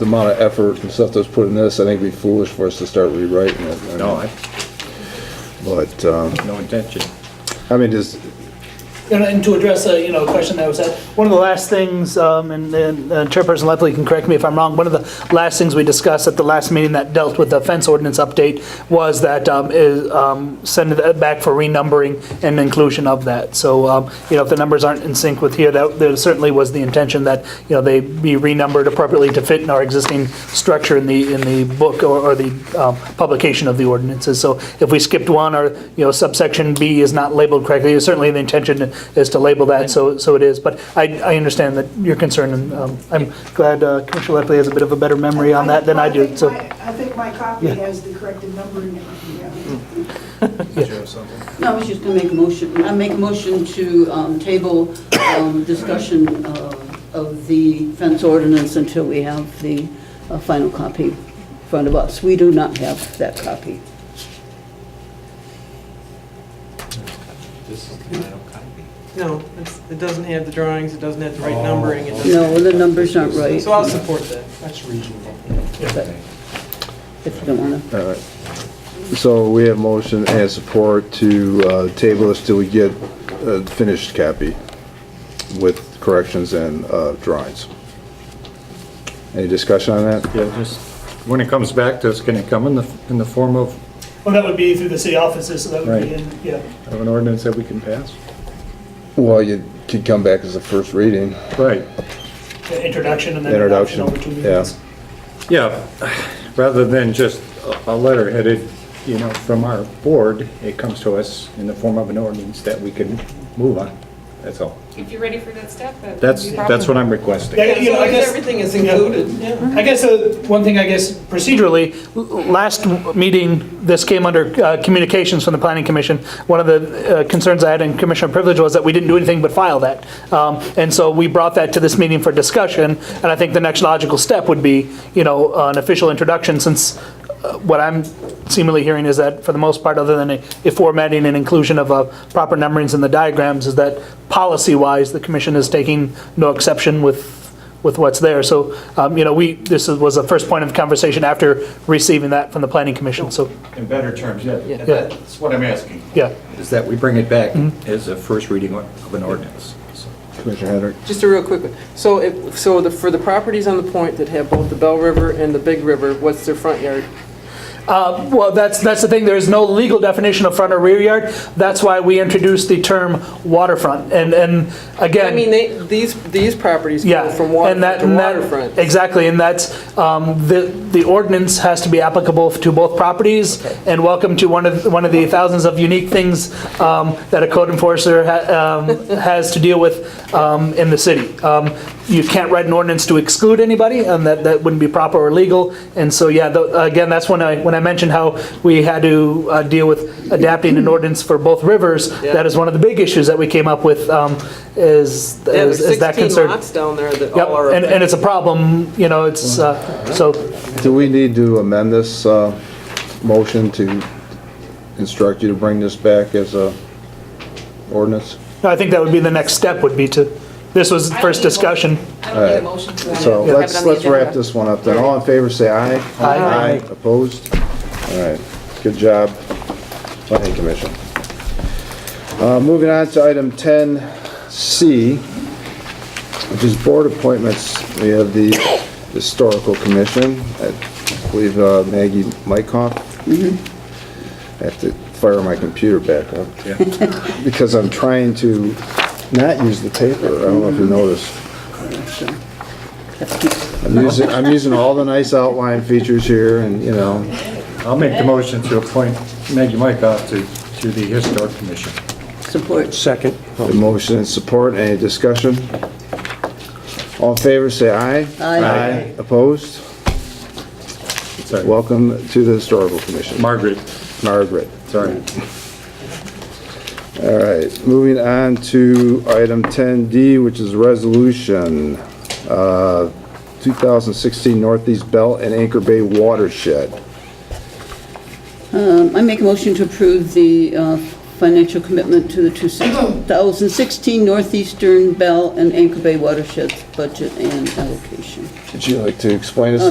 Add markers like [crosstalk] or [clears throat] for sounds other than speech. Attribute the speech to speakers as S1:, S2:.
S1: the amount of effort and stuff that's put in this, I think it'd be foolish for us to start rewriting it. I
S2: No,
S1: mean,
S2: I,
S1: But, um,
S2: no intention.
S1: I mean, just,
S3: And- And to address a, you know, question that was asked, one of the last things, um, and and, uh, Chairperson Lepley can correct me if I'm wrong, one of the last things we discussed at the last meeting that dealt with the fence ordinance update was that um, is, um, send it back for renumbering and inclusion of that. So, um, you know, if the numbers aren't in sync with here, that there certainly was the intention that, you know, they be renumbered appropriately to fit in our existing structure in the, in the book or or the um, publication of the ordinances. So if we skipped one or, you know, subsection B is not labeled correctly, certainly the intention is to label that, so, so it is. But I, I understand that your concern, and um, I'm glad uh, Commissioner Lepley has a bit of a better memory on that than I do,
S4: think
S3: so.
S4: my- I think my copy
S3: Yeah.
S4: has the corrected number in it.
S5: No, I was just going to make a motion, I make a motion to um, table um, discussion uh, of the fence ordinance until we have the uh, final copy in front of us. We do not have that copy.
S6: This is the final copy.
S7: No, it's- it doesn't have the drawings, it doesn't have the right numbering, it doesn't...
S5: No, the numbers aren't right,
S7: So I'll support that.
S6: That's reasonable.
S5: but if you don't want to.
S1: all right. So we have motion and support to, uh, table this till we get a finished copy with corrections and, uh, drawings. Any discussion on that?
S2: Yeah, just, when it comes back to us, can it come in the, in the form of,
S3: Well, that would be through the city offices, so that
S2: would be Right.
S3: in, yeah.
S2: of an ordinance that we can pass?
S1: Well, you could come back as a first reading.
S2: Right,
S3: introduction and
S1: then adoption Introduction, over two meetings.
S2: yeah, rather than just a a letter headed, you know, from our board, it comes to us in the form of an ordinance that we can move on, that's all.
S8: If you're ready for that step, that would
S2: That's,
S8: be
S2: that's what I'm requesting.
S3: Yeah, you know, I
S7: So
S3: guess-
S7: Everything is
S3: Yeah.
S7: included, yeah.
S3: I guess, uh, one thing, I guess, procedurally, l- last meeting, this came under uh, communications from the planning commission. One of the uh, concerns I had in commissioner privilege was that we didn't do anything but file that. Um, And so we brought that to this meeting for discussion, and I think the next logical step would be, you know, an official introduction, since uh, what I'm seemingly hearing is that, for the most part, other than a a formatting and inclusion of uh, proper numberings in the diagrams, is that policy-wise, the commission is taking no exception with with what's there. So, um, you know, we, this is- was the first point of conversation after receiving that from the planning commission, so,
S6: In better terms, yeah.
S7: Yeah.
S6: That's what I'm asking.
S3: yeah.
S2: Is that we bring it back as a first reading of an ordinance. so.
S1: Commissioner Henry?
S7: Just a real quick one. So if, so the, for the properties on the point that have both the Bell River and the Big River, what's their front yard?
S3: Well, that's, that's the thing, there is no legal definition of front or rear yard. That's why we introduced the term waterfront, and, and
S7: I mean,
S3: again,
S7: they, these, these properties
S3: yeah.
S7: go from
S3: and that-
S7: waterfront to
S3: and that-
S7: waterfront.
S3: Exactly, and that's, um, the, the ordinance has to be applicable to both properties, and welcome to one of, one of the thousands of unique things um, that a code enforcer ha- um, has to deal with um, in the city. Um, You can't write an ordinance to exclude anybody, and that, that wouldn't be proper or legal, and so, yeah, tho- again, that's when I, when I mentioned how we had to uh, deal with adapting an ordinance for both rivers,
S7: Yeah.
S3: that is one of the big issues that we came up with, um, is,
S7: Yeah,
S3: is
S7: there's
S3: is that
S7: 16
S3: concern.
S7: lots down there that
S3: Yep,
S7: all are...
S3: and, and it's a problem, you know, it's, uh, so,
S1: Do we need to amend this uh, motion to instruct you to bring this back as a ordinance?
S3: no, I think that would be the next step, would be to, this was the first discussion.
S8: I don't need a motion for that.
S1: So
S8: Have it
S1: let's,
S8: on the
S1: let's wrap
S8: agenda.
S1: this one up then. All in favor, say aye.
S3: Aye.
S1: Opposed? All right, good job, planning commission. Uh, Moving on to item 10C, which is board appointments. We have the historical commission, I believe uh, Maggie Mykoff. I have to fire my computer back up because I'm trying to not use the paper. I don't know if you noticed. I'm using, I'm using all the nice outline features here and, you know,
S2: I'll make the motion to appoint Maggie Mykoff to, to the Historic Commission.
S5: Support.
S9: Second.
S1: the motion and support, any discussion? All in favor, say aye.
S5: Aye.
S1: Opposed?
S2: Sorry.
S1: Welcome to the Historical Commission,
S2: Margaret,
S1: Margaret.
S2: sorry.
S1: All right, moving on to item 10D, which is resolution, uh, 2016 Northeast Belt and Anchor Bay Watershed.
S5: Um, I make a motion to approve the uh, financial commitment to the
S7: [clears throat]
S5: 2016 Northeastern Bell and Anchor Bay watersheds budget and allocation.
S1: Would you like to explain us